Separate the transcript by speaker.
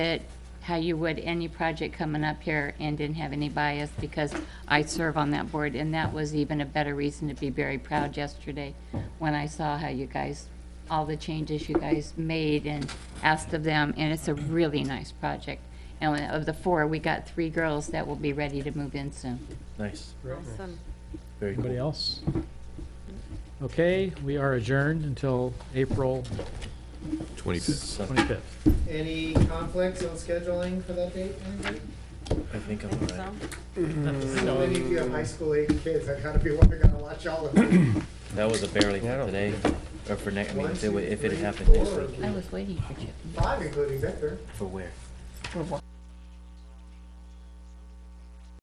Speaker 1: it how you would any project coming up here and didn't have any bias because I serve on that board and that was even a better reason to be very proud yesterday when I saw how you guys, all the changes you guys made and asked of them and it's a really nice project. And of the four, we got three girls that will be ready to move in soon.
Speaker 2: Nice,
Speaker 3: Awesome.
Speaker 2: very
Speaker 4: Anybody
Speaker 2: cool.
Speaker 4: else? Okay, we are adjourned until April
Speaker 5: 25th.
Speaker 4: 25th.
Speaker 6: Any conflicts on scheduling for that date, anybody?
Speaker 2: I think I'm all right.
Speaker 6: So many of you have high school age kids, I gotta be wondering, I gotta watch all of them.
Speaker 2: That was a barely for today, or for next, I mean,
Speaker 6: One,
Speaker 2: if it wa-
Speaker 6: two,
Speaker 2: if it
Speaker 6: three,
Speaker 2: happened next
Speaker 6: four.
Speaker 2: week,
Speaker 1: I was waiting for you.
Speaker 6: Five, including Victor.
Speaker 2: for where?
Speaker 1: For what?